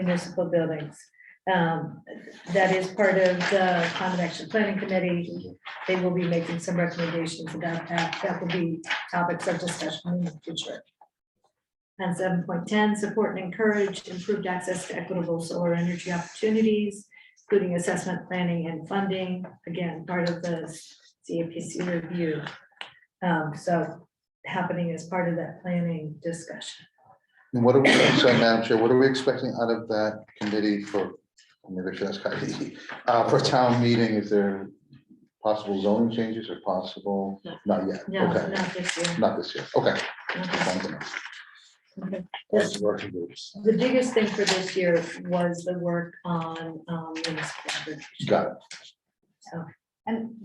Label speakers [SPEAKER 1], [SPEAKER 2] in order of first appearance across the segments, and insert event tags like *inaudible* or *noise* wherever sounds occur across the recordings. [SPEAKER 1] municipal buildings. Um, That is part of the Climate Action Planning Committee. They will be making some recommendations about that. That will be topics of discussion in the future. And seven point ten, support and encourage improved access to equitable solar energy opportunities, including assessment, planning, and funding. Again, part of the CAPC review. Um, So happening as part of that planning discussion.
[SPEAKER 2] And what are we, so Madam Chair, what are we expecting out of that committee for, maybe I should ask Heidi, uh, for town meeting? Is there possible zoning changes or possible?
[SPEAKER 1] No.
[SPEAKER 2] Not yet,
[SPEAKER 1] No,
[SPEAKER 2] okay,
[SPEAKER 1] not this year.
[SPEAKER 2] not this year, okay.
[SPEAKER 1] Okay.
[SPEAKER 2] Thank you.
[SPEAKER 1] This-
[SPEAKER 2] That's working groups.
[SPEAKER 1] The biggest thing for this year was the work on um, municipal aggregation.
[SPEAKER 2] Got it,
[SPEAKER 1] So,
[SPEAKER 3] And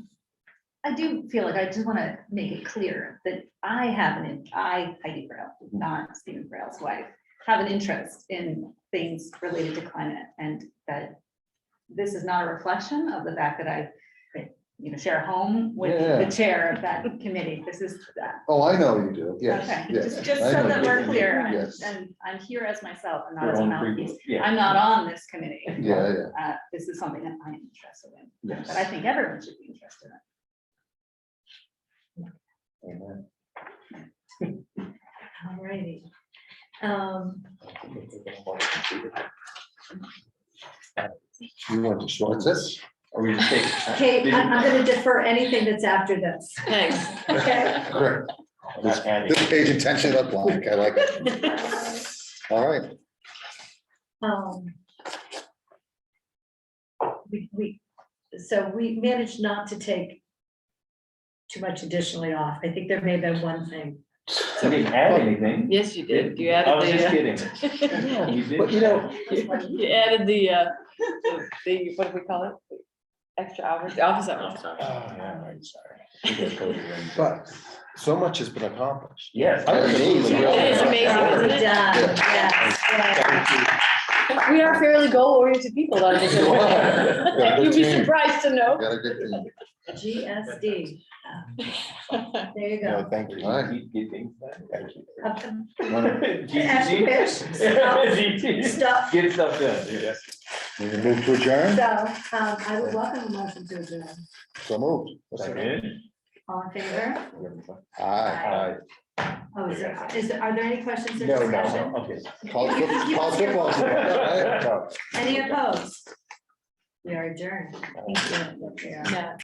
[SPEAKER 3] I do feel like I just want to make it clear that I have an, I, Heidi Braille,
[SPEAKER 2] Mhm.
[SPEAKER 3] not Stephen Braille's wife, have an interest in things related to climate and that this is not a reflection of the fact that I, you know, share a home with
[SPEAKER 2] Yeah.
[SPEAKER 3] the chair of that committee. This is, uh,
[SPEAKER 2] oh, I know you do, yes,
[SPEAKER 3] okay,
[SPEAKER 2] yes.
[SPEAKER 3] just, just
[SPEAKER 2] I
[SPEAKER 3] so
[SPEAKER 2] know
[SPEAKER 3] that
[SPEAKER 2] you
[SPEAKER 3] we're
[SPEAKER 2] do.
[SPEAKER 3] clear. I'm-
[SPEAKER 2] Yes, yeah,
[SPEAKER 3] And I'm here as myself and not
[SPEAKER 4] Your
[SPEAKER 3] as a
[SPEAKER 4] own
[SPEAKER 3] mouthpiece.
[SPEAKER 4] previous- yeah.
[SPEAKER 3] I'm not on this committee.
[SPEAKER 2] yeah,
[SPEAKER 3] Uh, This is something that I'm interested in, but I
[SPEAKER 2] yes.
[SPEAKER 3] think everyone should be interested in.
[SPEAKER 4] Amen.
[SPEAKER 1] alrighty. Um,
[SPEAKER 4] You want to show
[SPEAKER 2] What's this?
[SPEAKER 4] Are we?
[SPEAKER 5] *laughs*
[SPEAKER 1] Kate, I'm I'm gonna defer anything that's after this.
[SPEAKER 5] Thanks.
[SPEAKER 1] Okay.
[SPEAKER 2] Great.
[SPEAKER 5] *laughs*
[SPEAKER 4] Not adding.
[SPEAKER 2] This page intentionally left blank, I like it,
[SPEAKER 3] *laughs*
[SPEAKER 2] all right.
[SPEAKER 1] Um, We, we, so we managed not to take too much additionally off. I think there may have been one thing.
[SPEAKER 4] I didn't add anything.
[SPEAKER 5] Yes, you did. You
[SPEAKER 4] I was just
[SPEAKER 5] added
[SPEAKER 4] kidding.
[SPEAKER 5] the, uh,
[SPEAKER 4] You did.
[SPEAKER 5] but you know, *laughs* you added the, uh, the, what do we call it? Extra hours, the office hours.
[SPEAKER 4] Yeah, right,
[SPEAKER 5] *laughs*
[SPEAKER 4] sorry.
[SPEAKER 6] But so much has been
[SPEAKER 5] *laughs*
[SPEAKER 6] accomplished.
[SPEAKER 4] Yes.
[SPEAKER 6] I was amazed.
[SPEAKER 5] It is amazing,
[SPEAKER 1] Already
[SPEAKER 5] isn't
[SPEAKER 1] done,
[SPEAKER 5] it?
[SPEAKER 1] yes, yes.
[SPEAKER 5] We are fairly goal-oriented people on this.
[SPEAKER 2] You
[SPEAKER 4] *laughs*
[SPEAKER 2] are.
[SPEAKER 5] You'd be surprised to know.
[SPEAKER 2] Got a good team.
[SPEAKER 1] GSD. There you
[SPEAKER 6] No,
[SPEAKER 1] go.
[SPEAKER 6] thank you.
[SPEAKER 2] All right.
[SPEAKER 4] You think
[SPEAKER 6] Thank you.
[SPEAKER 1] Up-
[SPEAKER 2] Wanna-
[SPEAKER 5] Uh,
[SPEAKER 4] *laughs* that?
[SPEAKER 5] *laughs*
[SPEAKER 1] Ask
[SPEAKER 4] GG.
[SPEAKER 1] Stuff
[SPEAKER 4] *laughs* Get stuff done, yeah.
[SPEAKER 2] we can Move to adjourn,
[SPEAKER 1] So, um, I would welcome a motion to adjourn.
[SPEAKER 2] so moved.
[SPEAKER 4] Second.
[SPEAKER 1] All in favor?
[SPEAKER 2] Aye.
[SPEAKER 5] Uh,
[SPEAKER 4] Aye.
[SPEAKER 1] Oh, is there, is, there- are there any questions or
[SPEAKER 6] No, no, no.
[SPEAKER 1] discussion?
[SPEAKER 4] Okay.
[SPEAKER 2] College foot- college
[SPEAKER 6] *laughs*
[SPEAKER 2] football's about, right?
[SPEAKER 1] Any opposed? We are adjourned. Thank you. Yeah.
[SPEAKER 5] Yeah.